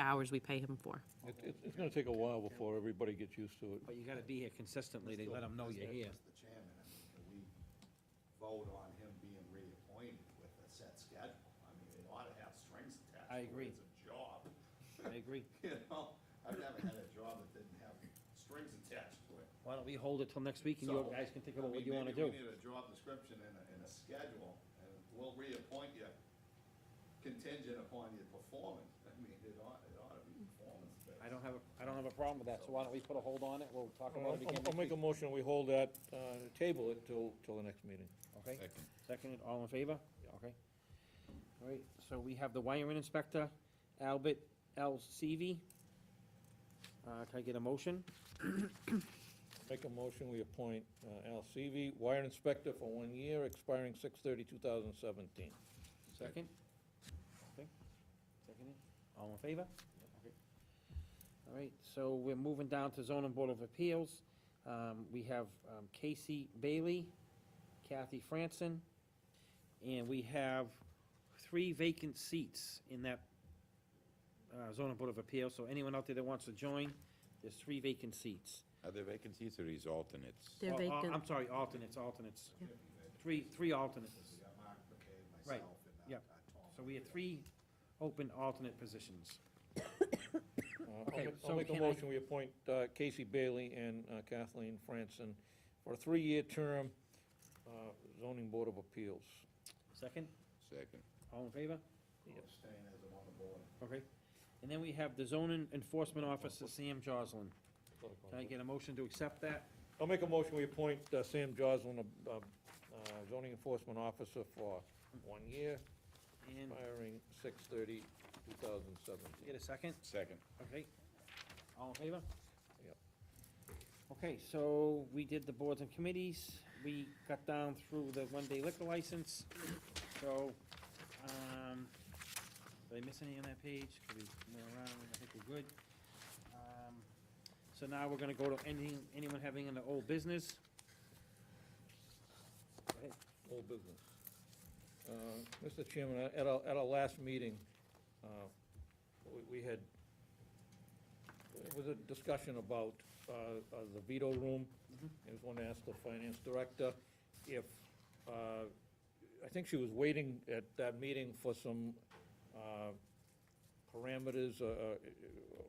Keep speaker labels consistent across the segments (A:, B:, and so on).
A: hours we pay him for.
B: It, it- it's gonna take a while before everybody gets used to it.
C: But you gotta be here consistently, they let them know you're here.
D: Mr. Chairman, I mean, can we vote on him being reappointed with a set schedule? I mean, it ought to have strings attached.
C: I
D: to it.
C: agree.
D: It's a job,
C: I agree.
D: you know? I've never had a job that didn't have strings attached to it.
C: Why don't we hold it till next week and you
D: So,
C: guys can think
D: I
C: about what
D: mean,
C: you wanna
D: Maybe
C: do?
D: we need a job description and a, and a schedule, and we'll reappoint you contingent upon your performance. I mean, it ought, it ought to be performance-based.
C: I don't have, a I don't have a problem with that, so why don't we put a hold on it, we'll talk about
B: I'll,
C: it again
B: I'll
C: next
B: make a
C: week.
B: motion, we hold that, uh, table it till, till the next meeting.
C: Okay, second, all in favor? Okay. All right, so we have the wiring inspector, Albert L. Seavey. Uh, can I get a motion?
B: Make a motion, we appoint uh, Al Seavey, wire inspector for one year, expiring 6/30, 2017.
C: Second? Okay. Second, all in favor? Okay. All right, so we're moving down to zoning board of appeals. Um, we have um, Casey Bailey, Kathy Franson, and we have three vacant seats in that uh, zoning board of appeals, so anyone out there that wants to join, there's three vacant seats.
E: Are there vacancies or is alternates?
A: They're
C: Oh, oh,
A: vacant.
C: I'm sorry, alternates, alternates.
A: Yeah.
C: Three, three alternates.
D: We got Mark McCabe,
C: Right,
D: myself, and
C: yeah.
D: uh, uh, Tom.
C: So we have three open alternate positions.
B: Uh, I'll
C: Okay,
B: make-
C: so
B: I'll make a
C: can I-
B: motion, we appoint uh, Casey Bailey and uh, Kathleen Franson for a three-year term, uh, zoning board of appeals.
C: Second,
E: Second.
C: all in favor?
D: I'll abstain as I'm on the board.
C: Okay. And then we have the zoning enforcement officer, Sam Joslin. Can I get a motion to accept that?
B: I'll make a motion, we appoint uh, Sam Joslin, uh, uh, zoning enforcement officer for one year,
C: And
B: expiring 2017.
C: get a second?
E: Second.
C: Okay. All in favor?
B: Yep.
C: Okay, so we did the boards and committees. We got down through the one-day liquor license. So, um, did I miss any on that page? Could we move around? I think we're good. Um, So now we're gonna go to anything, anyone having an old business? Go ahead.
B: Old business. Uh, Mr. Chairman, uh, at our, at our last meeting, uh, we- we had, it was a discussion about uh, uh, the veto room.
C: Mhm.
B: I was going to ask the finance director if, uh, I think she was waiting at that meeting for some uh, parameters, uh, uh,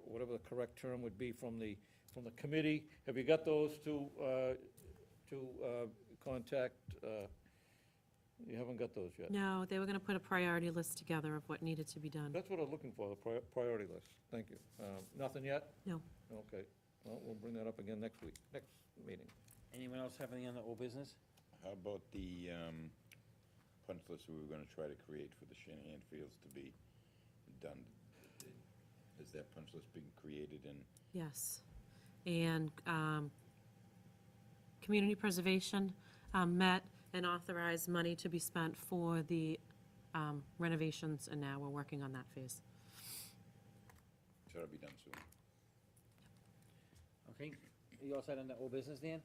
B: whatever the correct term would be, from the, from the committee. Have you got those to, uh, to uh, contact? uh, You haven't got those yet?
A: No, they were gonna put a priority list together of what needed to be done.
B: That's what I'm looking for, the prior- priority list. Thank you. Um, Nothing yet?
A: No.
B: Okay. Well, we'll bring that up again next week, next meeting.
C: Anyone else have any on the old business?
E: How about the um, punch list we were gonna try to create for the Shanahan Fields to be done? Has that punch list been created and
A: Yes. And um, Community Preservation um, met and authorized money to be spent for the um, renovations, and now we're working on that phase.
E: so it'll be done soon?
C: Okay, you all set on the old business, Dan?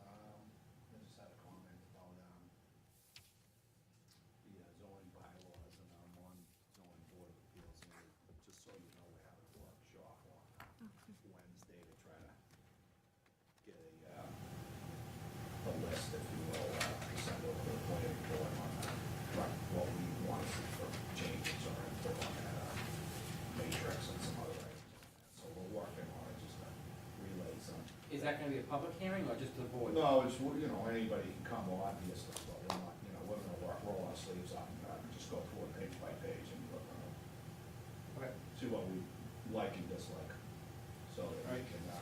D: Um, I just had a comment about, um, the uh, zoning bylaws and I'm on zoning board of appeals and we- just so you know, we're having a workshop on Wednesday to try to get a, uh, a list, if you will, uh, send over to the planning board on that, what what we want to see for changes or input on that, uh, matrix and some other items. on that. So we're working on it, just to relay some
C: Is that gonna be a public hearing or just the board?
D: no, it's, you know, anybody can come, well, obviously, but we're not, you know, we're gonna work, roll our sleeves up and uh, just go through it page by page and look, uh,
C: Okay.
D: see what we like and dislike. So that we can, uh,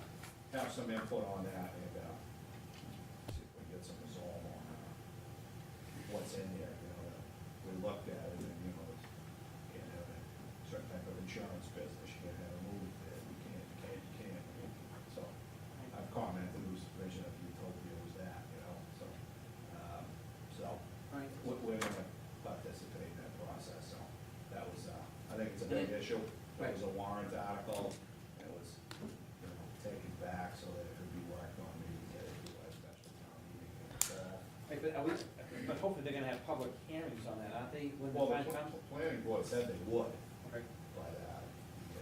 D: have some input on that and, uh, see if we get some resolve on, uh, what's in there, you know, that we looked at it and, you know, it's, you can't have a certain type of insurance business, you can't have a movie bid, you can't, you can't, you can't, I mean, so. I've commented whose vision of utopia was that, you know, so, um, so,
C: Right.
D: we- we're gonna participate in that process, so, that was, uh, I think it's a big issue. It was a warrant article, and it was, you know, taken back so that it could be worked on, maybe get it to a special town meeting. and, uh,
C: Wait, But are we, but hopefully they're gonna have public hearings on that, aren't they? when the
D: Well, the
C: time comes?
D: pl- planning board said they would, uh,